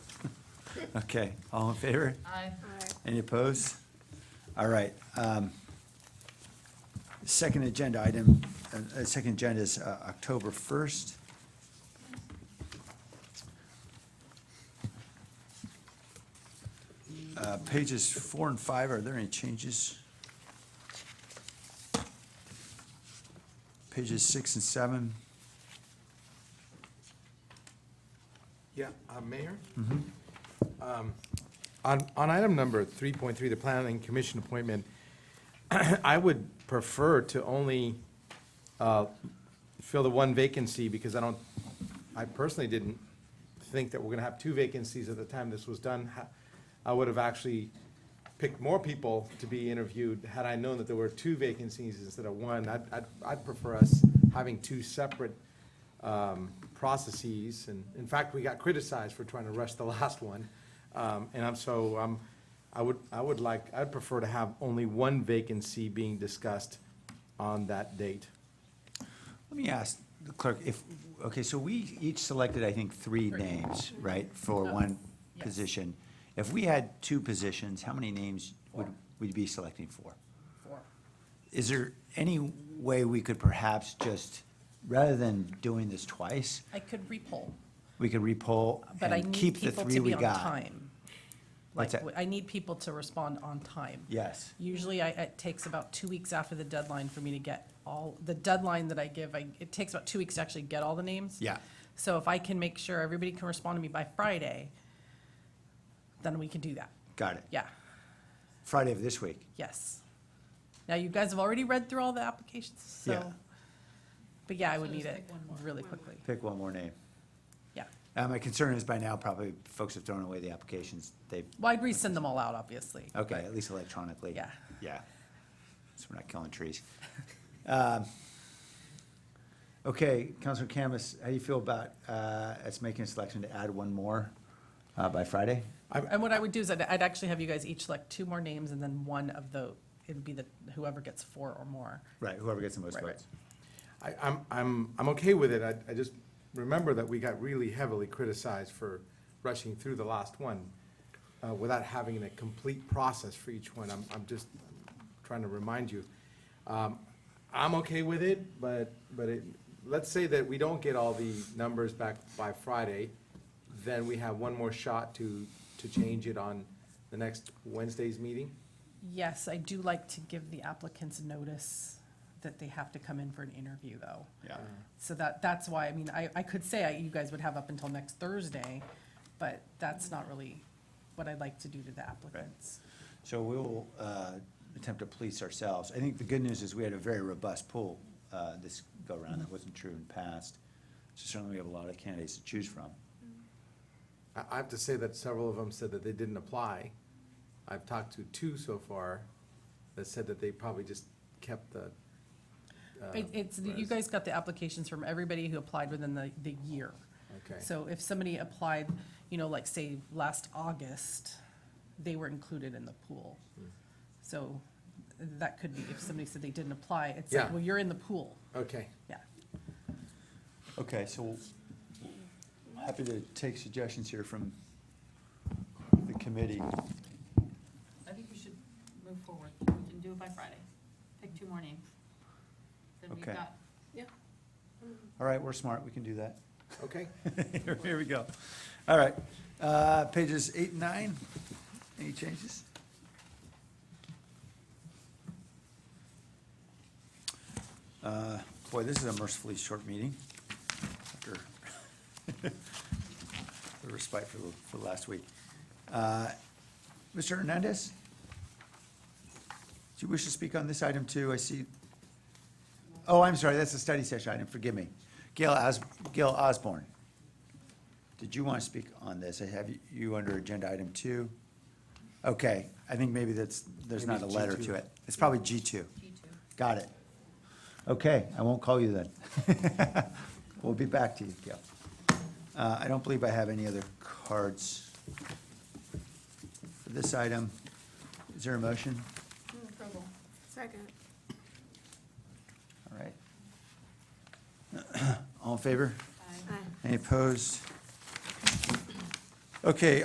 Okay, all in favor? Aye. Any opposed? All right. um, Second agenda item, uh, uh, second agenda is uh, October 1st. Uh, Pages four and five, are there any changes? Pages six and seven? Yeah, uh, Mayor? Um, On, on item number 3.3, the Planning Commission appointment, I would prefer to only uh, fill the one vacancy because I don't, I personally didn't think that we're going to have two vacancies at the time this was done. Ha- I would have actually picked more people to be interviewed had I known that there were two vacancies instead of one. I'd, I'd- I'd prefer us having two separate um, processes. And in fact, we got criticized for trying to rush the last one. Um, And I'm so, um, I would, I would like, I'd prefer to have only one vacancy being discussed on that date. Let me ask the clerk if, okay, so we each selected, I think, three names, right, for Uh, one yes. position. If we had two positions, how many names would we be selecting for? Four. Is there any way we could perhaps just, rather than doing this twice, I could repoll, we could repoll but I and need keep the people three to we be on got? time. What's Like, that? I need people to respond on time. Yes, Usually I, it takes about two weeks after the deadline for me to get all, the deadline that I give, I, it takes about two weeks to actually get all the names. yeah. So if I can make sure everybody can respond to me by Friday, then we can do that. Got it. Yeah, Friday of this week. yes. Now, you guys have already read through all the applications, Yeah. so. But yeah, I would So need just it pick one more, really one more. quickly. Pick one more name. Yeah. Uh, My concern is by now, probably folks have thrown away the applications. They, Well, I'd resend them all out, obviously. okay, at least electronically. Yeah. Yeah, so we're not killing trees. Um, Okay, Councilor Camus, how do you feel about uh, us making a selection to add one more uh, by Friday? And what I would do is I'd, I'd actually have you guys each select two more names and then one of the, it'd be the, whoever gets four or more. Right, whoever gets the most Right, right. votes. I, I'm, I'm, I'm okay with it. I, I just remember that we got really heavily criticized for rushing through the last one uh, without having a complete process for each one. I'm, I'm just trying to remind you. Um, I'm okay with it, but, but it, let's say that we don't get all the numbers back by Friday, then we have one more shot to, to change it on the next Wednesday's meeting. Yes, I do like to give the applicants notice that they have to come in for an interview, though. Yeah. So that, that's why, I mean, I, I could say I- you guys would have up until next Thursday, but that's not really what I'd like to do to the applicants. So we will uh, attempt to police ourselves. I think the good news is we had a very robust pool uh, this go-around. That wasn't true in the past. So certainly we have a lot of candidates to choose from. I, I have to say that several of them said that they didn't apply. I've talked to two so far that said that they probably just kept the. uh, It, it's, you res- guys got the applications from everybody who applied within the, the year. Okay. So if somebody applied, you know, like say last August, they were included in the pool. So that could be, if somebody said they didn't apply, it's like, Yeah. well, you're in the pool. Okay, Yeah. Okay, so I'm happy to take suggestions here from the committee. I think we should move forward. We can do it by Friday. Pick two more names. Then we've Okay. got, yeah. All right, we're smart, we can do that. okay. Here here we go. All right, uh, pages eight and nine, any changes? Uh, Boy, this is a mercifully short meeting after the respite for, the- for last week. Uh, Mr. Hernandez? Do you wish to speak on this item too? I see Oh, I'm sorry, that's a study session item, forgive me. Gail Os, Gail Osborne, did you want to speak on this? I have you under agenda item two. Okay, I think maybe that's, there's Maybe not a it's letter G2. to it. It's probably G two. G two. Got it. Okay, I won't call you then. We'll be back to you, Gail. Uh, I don't believe I have any other cards for this item. Is there a motion? Move approval. Second. All right. All in favor? Aye. Aye. Any opposed? Okay,